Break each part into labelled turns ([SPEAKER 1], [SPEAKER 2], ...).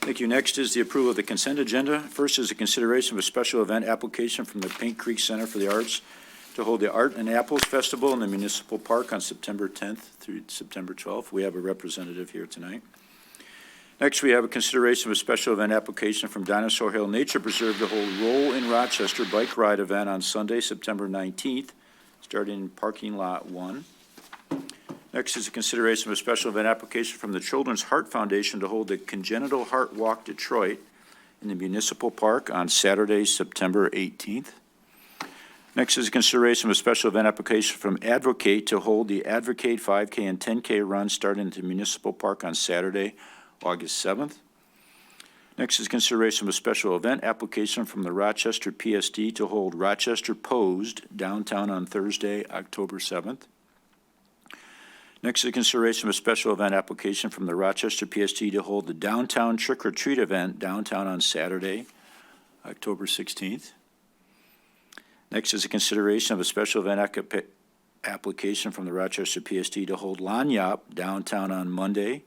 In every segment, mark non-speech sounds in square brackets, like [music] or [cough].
[SPEAKER 1] Thank you. Next is the approval of the consent agenda. First is the consideration of a special event application from the Pink Creek Center for the Arts to hold the Art and Apples Festival in the municipal park on September 10th through September 12th. We have a representative here tonight. Next, we have a consideration of a special event application from Dinosaur Hill Nature Preserve to hold Roll in Rochester Bike Ride event on Sunday, September 19th, starting in parking lot 1. Next is a consideration of a special event application from the Children's Heart Foundation to hold the Congenital Heart Walk Detroit in the Municipal Park on Saturday, September 18th. Next is a consideration of a special event application from Advocate to hold the Advocate 5K and 10K run starting at the Municipal Park on Saturday, August 7th. Next is consideration of a special event application from the Rochester PSD to hold Rochester Posed downtown on Thursday, October 7th. Next is consideration of a special event application from the Rochester PST to hold the downtown trick or treat event downtown on Saturday, October 16th. Next is a consideration of a special event acca- application from the Rochester PST to hold Lanyap downtown on Monday,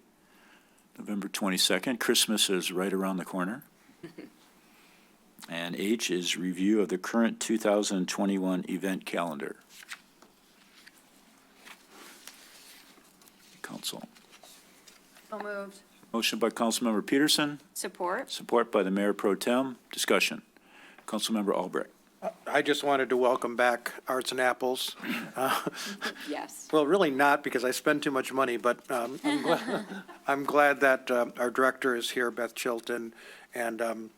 [SPEAKER 1] November 22nd. Christmas is right around the corner. And H is review of the current 2021 event calendar. Council.
[SPEAKER 2] So moved.
[SPEAKER 1] Motion by Councilmember Peterson,
[SPEAKER 2] Support?
[SPEAKER 1] support by the Mayor Pro Tem. Discussion. Councilmember Albrecht.
[SPEAKER 3] I just wanted to welcome back Arts and Apples. Uh,
[SPEAKER 2] Yes.
[SPEAKER 3] Well, really not, because I spend too much money, but um, I'm glad, I'm glad that um, our director is here, Beth Chilton, and um,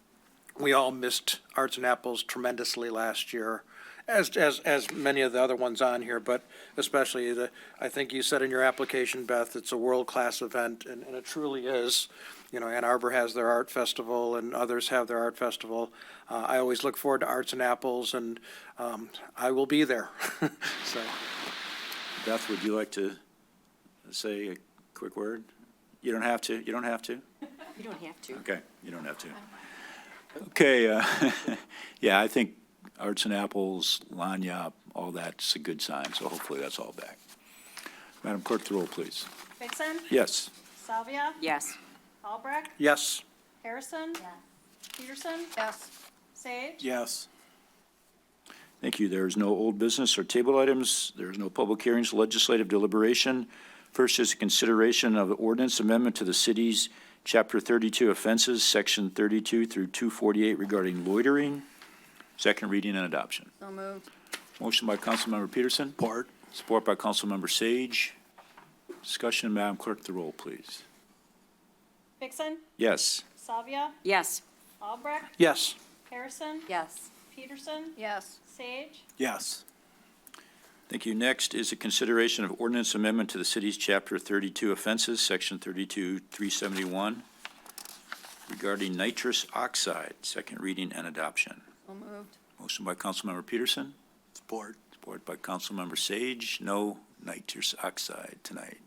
[SPEAKER 3] we all missed Arts and Apples tremendously last year, as, as, as many of the other ones on here, but especially the, I think you said in your application, Beth, it's a world-class event, and, and it truly is. You know, Ann Arbor has their art festival, and others have their art festival. Uh, I always look forward to Arts and Apples, and um, I will be there, [laughs] so.
[SPEAKER 1] Beth, would you like to say a quick word? You don't have to, you don't have to?
[SPEAKER 2] You don't have to.
[SPEAKER 1] Okay, you don't have to. Okay, uh, [laughs] yeah, I think Arts and Apples, Lanyap, all that's a good sign, so hopefully that's all back. Madam Clerk, the roll, please.
[SPEAKER 4] Vixen,
[SPEAKER 1] Yes.
[SPEAKER 4] Salvia,
[SPEAKER 2] Yes.
[SPEAKER 4] Albrecht,
[SPEAKER 3] Yes.
[SPEAKER 4] Harrison. Peterson,
[SPEAKER 2] Yes.
[SPEAKER 4] Sage,
[SPEAKER 3] Yes.
[SPEAKER 1] Thank you. There is no old business or table items. There is no public hearings, legislative deliberation. First is a consideration of ordinance amendment to the city's Chapter 32 offenses, Section 32 through 248 regarding loitering. Second reading and adoption.
[SPEAKER 2] So moved.
[SPEAKER 1] Motion by Councilmember Peterson. Support. Support by Councilmember Sage. Discussion, Madam Clerk, the roll, please.
[SPEAKER 4] Vixen,
[SPEAKER 1] Yes.
[SPEAKER 4] Salvia,
[SPEAKER 2] Yes.
[SPEAKER 4] Albrecht,
[SPEAKER 3] Yes.
[SPEAKER 4] Harrison,
[SPEAKER 2] Yes.
[SPEAKER 4] Peterson,
[SPEAKER 2] Yes.
[SPEAKER 4] Sage,
[SPEAKER 3] Yes.
[SPEAKER 1] Thank you. Next is a consideration of ordinance amendment to the city's Chapter 32 offenses, Section 32371, regarding nitrous oxide, second reading and adoption.
[SPEAKER 2] So moved.
[SPEAKER 1] Motion by Councilmember Peterson. Support. Support by Councilmember Sage. No nitrous oxide tonight.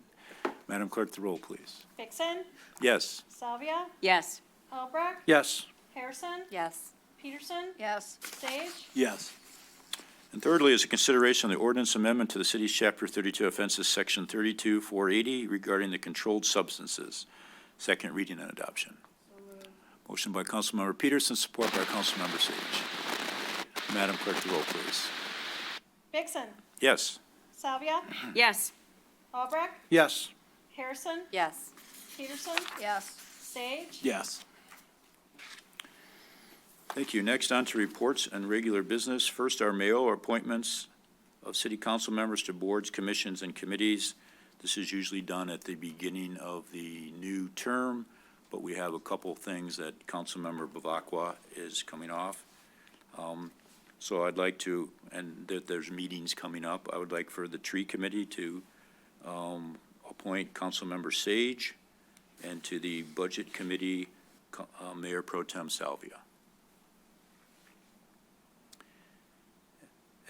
[SPEAKER 1] Madam Clerk, the roll, please.
[SPEAKER 4] Vixen,
[SPEAKER 1] Yes.
[SPEAKER 4] Salvia,
[SPEAKER 2] Yes.
[SPEAKER 4] Albrecht,
[SPEAKER 3] Yes.
[SPEAKER 4] Harrison,
[SPEAKER 2] Yes.
[SPEAKER 4] Peterson,
[SPEAKER 2] Yes.
[SPEAKER 4] Sage,
[SPEAKER 3] Yes.
[SPEAKER 1] And thirdly is a consideration of the ordinance amendment to the city's Chapter 32 offenses, Section 32480, regarding the controlled substances. Second reading and adoption. Motion by Councilmember Peterson, support by Councilmember Sage. Madam Clerk, the roll, please.
[SPEAKER 4] Vixen,
[SPEAKER 1] Yes.
[SPEAKER 4] Salvia,
[SPEAKER 2] Yes.
[SPEAKER 4] Albrecht,
[SPEAKER 3] Yes.
[SPEAKER 4] Harrison,
[SPEAKER 2] Yes.
[SPEAKER 4] Peterson,
[SPEAKER 2] Yes.
[SPEAKER 4] Sage,
[SPEAKER 3] Yes.
[SPEAKER 1] Thank you. Next, on to reports and regular business. First, our mayo or appointments of city council members to boards, commissions, and committees. This is usually done at the beginning of the new term, but we have a couple things that Councilmember Bavacqua is coming off. Um, So I'd like to, and there- there's meetings coming up, I would like for the tree committee to um, appoint Councilmember Sage and to the budget committee, Co- uh, Mayor Pro Tem Salvia.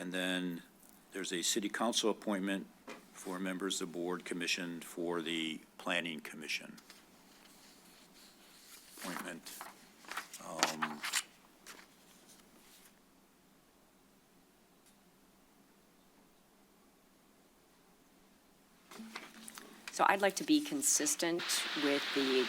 [SPEAKER 1] And then there's a city council appointment for members of the board commissioned for the planning commission. Appointment. um,
[SPEAKER 5] So I'd like to be consistent with the